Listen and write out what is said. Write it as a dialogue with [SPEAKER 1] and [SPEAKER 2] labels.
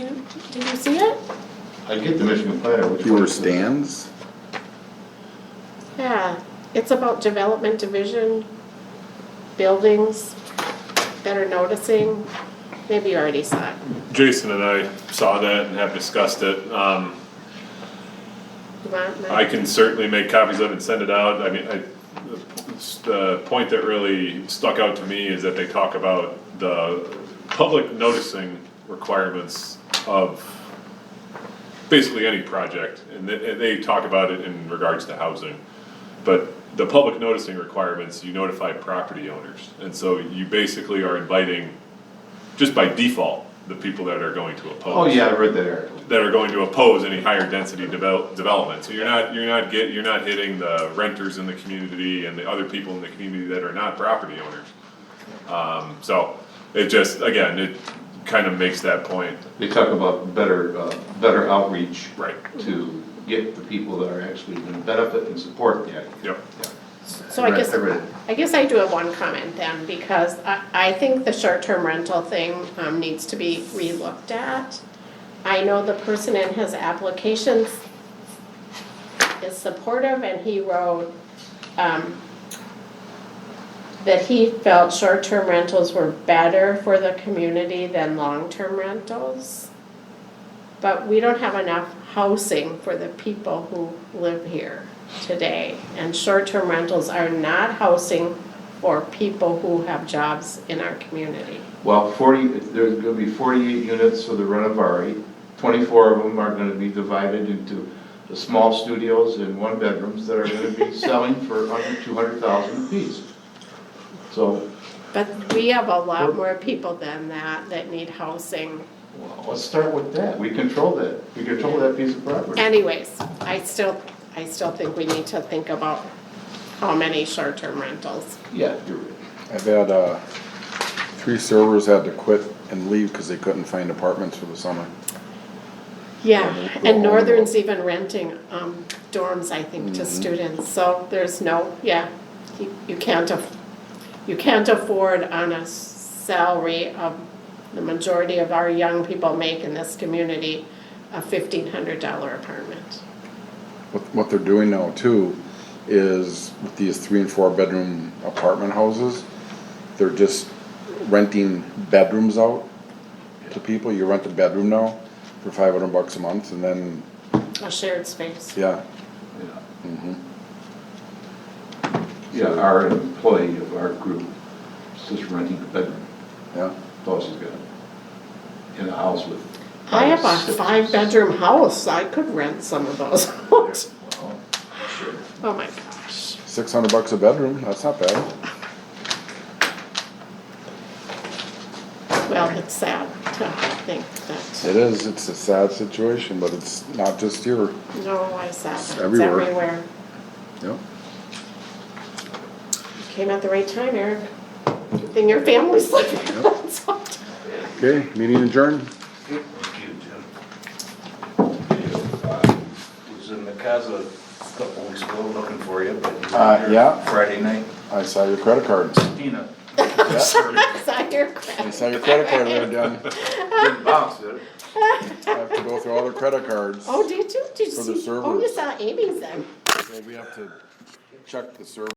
[SPEAKER 1] Did you see it?
[SPEAKER 2] I get the Michigan Planner, which
[SPEAKER 3] Fewer
[SPEAKER 2] one is it?
[SPEAKER 3] stands?
[SPEAKER 1] Yeah, it's about development division, buildings, better noticing. Maybe you already saw it.
[SPEAKER 4] Jason and I saw that and have discussed it. Um,
[SPEAKER 1] You want my-
[SPEAKER 4] I can certainly make copies of it and send it out. I mean, I, the point that really stuck out to me is that they talk about the public noticing requirements of basically any project, and they, and they talk about it in regards to housing. But the public noticing requirements, you notify property owners, and so you basically are inviting, just by default, the people that are going to oppose
[SPEAKER 2] Oh, yeah, I read that article.
[SPEAKER 4] that are going to oppose any higher density develop, development. So you're not, you're not get, you're not hitting the renters in the community and the other people in the community that are not property owners. Um, so it just, again, it kind of makes that point,
[SPEAKER 2] They talk about better, uh, better outreach.
[SPEAKER 4] right,
[SPEAKER 2] To get the people that are actually gonna benefit and support the idea.
[SPEAKER 4] yep.
[SPEAKER 2] Yeah.
[SPEAKER 1] So I
[SPEAKER 2] Right,
[SPEAKER 1] guess,
[SPEAKER 2] I read it.
[SPEAKER 1] I guess I do have one comment then, because I, I think the short-term rental thing, um, needs to be relooked at. I know the person in his applications is supportive, and he wrote, um, that he felt short-term rentals were better for the community than long-term rentals. But we don't have enough housing for the people who live here today. And short-term rentals are not housing for people who have jobs in our community.
[SPEAKER 2] Well, forty, there's gonna be forty-eight units for the Renovari. Twenty-four of them are gonna be divided into the small studios and one-bedrooms that are gonna be selling for under two hundred thousand apiece. So,
[SPEAKER 1] But we have a lot more people than that that need housing.
[SPEAKER 2] well, let's start with that. We control that. We control that piece of property.
[SPEAKER 1] Anyways, I still, I still think we need to think about how many short-term rentals.
[SPEAKER 2] Yeah, you're right.
[SPEAKER 3] I've had, uh, three servers had to quit and leave because they couldn't find apartments for the summer.
[SPEAKER 1] Yeah, and Northern's even renting um, dorms, I think, to students, so there's no, yeah, you you can't, aff- you can't afford on a salary of the majority of our young people make in this community a fifteen hundred dollar apartment.
[SPEAKER 3] What, what they're doing now too is with these three and four bedroom apartment houses, they're just renting bedrooms out to people. You rent a bedroom now for five hundred bucks a month and then,
[SPEAKER 1] A shared space,
[SPEAKER 3] yeah, mm-hmm,
[SPEAKER 2] Yeah, our employee of our group is just renting a bedroom,
[SPEAKER 3] yeah.
[SPEAKER 2] that's all she's got, in a house with.
[SPEAKER 1] I have a
[SPEAKER 2] six-
[SPEAKER 1] five bedroom house, I could rent some of those out.
[SPEAKER 2] Well, sure.
[SPEAKER 1] Oh my gosh,
[SPEAKER 3] Six hundred bucks a bedroom, that's not bad.
[SPEAKER 1] well, it's sad to think that,
[SPEAKER 3] It is, it's a sad situation, but it's not just here.
[SPEAKER 1] no, I said, it's
[SPEAKER 3] Everywhere.
[SPEAKER 1] everywhere.
[SPEAKER 3] Yeah.
[SPEAKER 1] Came at the right time, Eric. Good thing your family's living.
[SPEAKER 3] Okay, meeting adjourned.
[SPEAKER 5] Thank you, Jim. Uh, Was in the casa a couple weeks ago looking for you, but. you
[SPEAKER 3] Uh,
[SPEAKER 5] were
[SPEAKER 3] yeah.
[SPEAKER 5] Friday night.
[SPEAKER 3] I saw your credit cards.
[SPEAKER 5] Tina.
[SPEAKER 1] Sign your
[SPEAKER 3] I
[SPEAKER 1] credit.
[SPEAKER 3] saw your credit card there, done.
[SPEAKER 5] Didn't bounce, did it?
[SPEAKER 3] I have to go through all their credit cards.
[SPEAKER 1] Oh, did you? Did you
[SPEAKER 3] For the
[SPEAKER 1] see? Oh, you
[SPEAKER 3] servers.
[SPEAKER 1] saw Amy's then.
[SPEAKER 3] So we have to check the server.